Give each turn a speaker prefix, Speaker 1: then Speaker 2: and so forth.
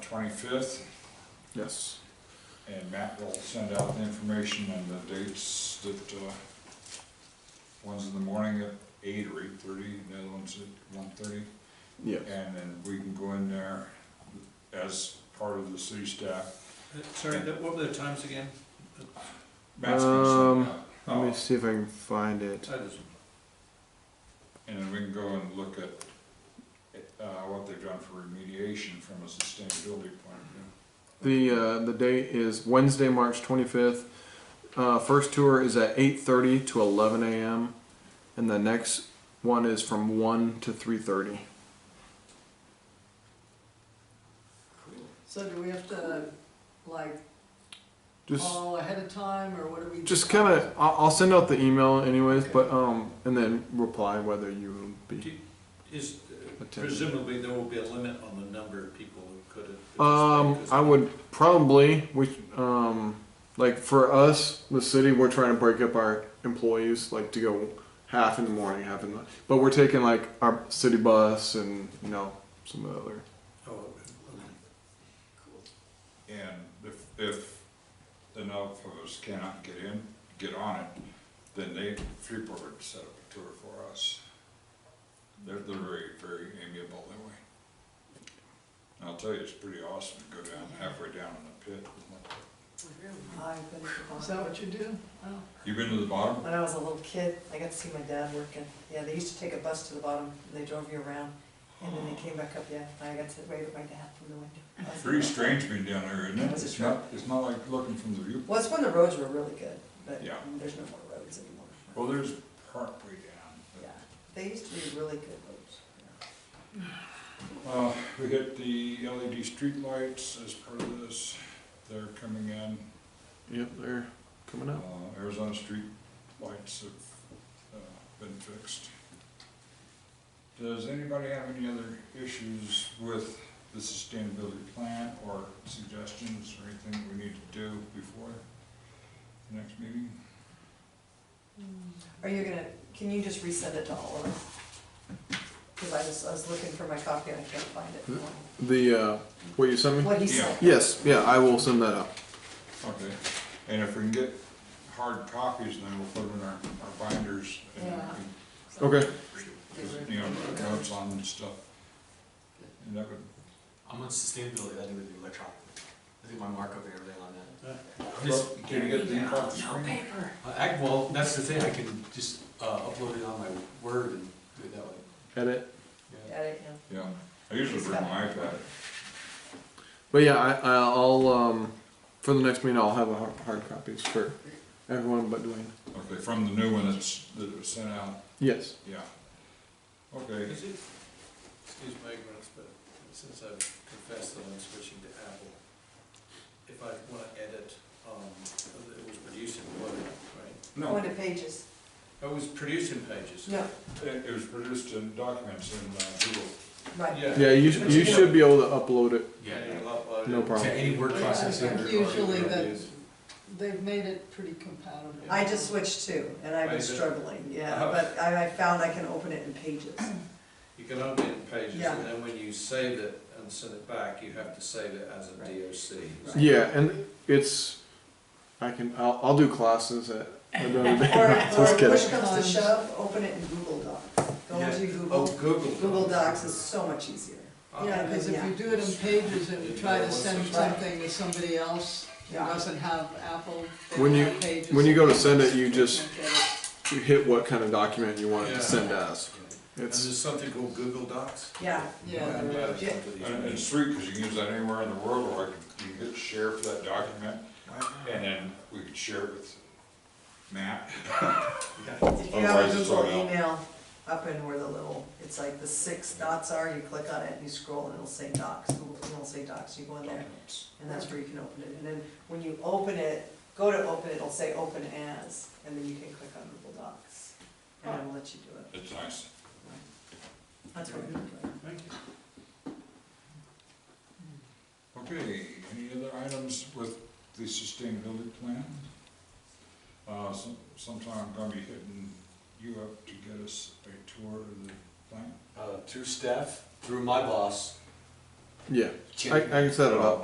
Speaker 1: twenty-fifth,
Speaker 2: Yes.
Speaker 1: and Matt will send out the information and the dates that, uh, one's in the morning at eight or eight-thirty, and the other one's at one-thirty.
Speaker 2: Yeah.
Speaker 1: And then we can go in there as part of the city staff.
Speaker 3: Uh, Sorry, that- what were the times again?
Speaker 1: Matt's gonna
Speaker 2: Um,
Speaker 1: send it out.
Speaker 2: Let me
Speaker 3: Oh.
Speaker 2: see if I can find it.
Speaker 3: I just-
Speaker 1: And then we can go and look at, uh, what they've done for remediation from a sustainability point of view.
Speaker 2: The uh, the date is Wednesday, March 25th. Uh, first tour is at 8:30 to 11 a.m. and the next one is from 1 to 3:30.
Speaker 4: So do we have to, like,
Speaker 2: Just
Speaker 4: call ahead of time, or what do we?
Speaker 2: just kind of I'll, I'll send out the email anyways, but um and then reply whether you will be.
Speaker 3: Is, uh,
Speaker 2: Attended.
Speaker 3: presumably, there will be a limit on the number of people who could
Speaker 2: Um,
Speaker 3: have. participated, 'cause-
Speaker 2: I would probably we um like for us the city we're trying to break up our employees like to go half in the morning half in the but we're taking like our city bus and you know some other
Speaker 3: Oh, okay, okay.
Speaker 1: And if, if enough of us cannot get in, get on it, then they, Freeport would set up a tour for us. They're, they're very, very amiable that way. And I'll tell you, it's pretty awesome to go down halfway down in the pit.
Speaker 5: I've been to
Speaker 4: Is
Speaker 5: Vermont.
Speaker 4: that what you do? Oh,
Speaker 1: You been to the bottom?
Speaker 5: When I was a little kid, I got to see my dad working. Yeah, they used to take a bus to the bottom, and they drove you around, and then they came back up, yeah, and I got to wave at my dad from the window. I was-
Speaker 1: Pretty strange being down there, isn't it?
Speaker 5: That's a
Speaker 1: It's not, it's not like looking from the viewpoint.
Speaker 5: Well, it's when the roads were really good, but
Speaker 1: Yeah.
Speaker 5: there's no more roads anymore.
Speaker 1: Well, Oh, there's partway down.
Speaker 5: Yeah, they used to be really good roads. yeah.
Speaker 1: Uh, we hit the LED streetlights as part of this. They're coming in.
Speaker 2: yep they're coming
Speaker 1: Uh,
Speaker 2: up
Speaker 1: Arizona street lights have uh, been fixed. Does anybody have any other issues with the sustainability plan or suggestions or anything we need to do before the next meeting?
Speaker 5: Are you gonna, can you just resend it to all of us? Because I just, I was looking for my copy and I can't find it.
Speaker 2: the uh what you sent me
Speaker 5: What he said.
Speaker 2: yes yeah I will send that out
Speaker 1: Okay, and if we can get hard copies, then we'll put them in our, our binders and
Speaker 5: Yeah.
Speaker 2: okay
Speaker 1: you know, notes on and stuff. And that would,
Speaker 6: I'm on sustainability, I do it electronic. I do my markup and everything on that.
Speaker 1: Well,
Speaker 6: Just-
Speaker 1: can you get the ink off the screen?
Speaker 6: Uh, act- well, that's the thing, I can just, uh, upload it on my Word and do it that way.
Speaker 2: edit
Speaker 6: Yeah.
Speaker 5: Got it, yeah.
Speaker 1: Yeah, I usually bring my iPad.
Speaker 2: But yeah, I, I'll um, for the next meeting I'll have a hard, hard copies for everyone but Dwayne.
Speaker 1: Okay, from the new one that's, that was sent out,
Speaker 2: Yes.
Speaker 1: yeah. Okay,
Speaker 3: Is it, excuse my ignorance, but since I've confessed that I'm switching to Apple, if I want to edit, um, it was produced in Word, right?
Speaker 5: Go
Speaker 1: no,
Speaker 5: into pages.
Speaker 3: It was produced in Pages.
Speaker 5: No,
Speaker 1: it, it was produced in documents in uh, Google.
Speaker 5: right.
Speaker 2: Yeah, you, sh- you should be able to upload it.
Speaker 6: Yeah,
Speaker 3: And you'll upload it.
Speaker 2: No
Speaker 6: yeah.
Speaker 2: problem.
Speaker 6: To any word processing. or- or-
Speaker 4: Usually
Speaker 6: or-
Speaker 4: that- They've made it pretty compatible.
Speaker 5: I just switched too, and I've
Speaker 3: Wait,
Speaker 5: been
Speaker 3: is it- Oh.
Speaker 5: struggling, yeah, but I, I found I can open it in pages.
Speaker 3: You can open it in Pages,
Speaker 5: Yeah.
Speaker 3: and then when you save it and send it back, you have to save it as a
Speaker 5: Right.
Speaker 3: DOC.
Speaker 5: Right.
Speaker 2: Yeah, and it's I can I'll, I'll do classes at another
Speaker 5: Or,
Speaker 2: day.
Speaker 5: or
Speaker 2: Just kidding.
Speaker 5: push comes to shove, open it in Google Docs. Go
Speaker 3: Yeah.
Speaker 5: into
Speaker 3: Oh,
Speaker 5: Google,
Speaker 3: Google.
Speaker 5: Google Docs is so much easier.
Speaker 3: Ah.
Speaker 4: Yeah, because if you do it in pages, it would try to send something to somebody else who
Speaker 5: Yeah.
Speaker 4: doesn't have Apple, they
Speaker 2: When
Speaker 4: don't
Speaker 2: you-
Speaker 4: have pages.
Speaker 2: when you go to send it, you
Speaker 4: They
Speaker 2: just-
Speaker 4: can't get it.
Speaker 2: You hit what kind of document you want it
Speaker 3: Yeah.
Speaker 2: to send us.
Speaker 3: And
Speaker 2: It's
Speaker 3: there's something called Google Docs?
Speaker 5: Yeah,
Speaker 4: Yeah,
Speaker 3: I'm
Speaker 4: there
Speaker 3: glad
Speaker 4: is.
Speaker 3: I come to these
Speaker 1: And it's
Speaker 3: meetings.
Speaker 1: free, cause you can use that anywhere in the world, or I can, you can hit share for that document, and then we could share it with Matt.
Speaker 5: if you have
Speaker 1: Otherwise,
Speaker 5: a
Speaker 1: Oh, it's
Speaker 5: Google
Speaker 1: all out.
Speaker 5: email up in where the little, it's like the six dots are, you click on it and you scroll and it'll say Docs, Google, it'll say Docs, you go in there. And that's where you can open it, and then when you open it, go to open it, it'll say open as, and then you can click on Google Docs. And it'll let you do it,
Speaker 1: It's nice.
Speaker 5: that's what I'm doing.
Speaker 3: Thank you.
Speaker 1: Okay, any other items with the sustainability plan? Uh, some- sometime I'm gonna be hitting you up to get us a tour of the plant.
Speaker 6: Uh, through staff, through my boss,
Speaker 2: Yeah, I, I can set it up.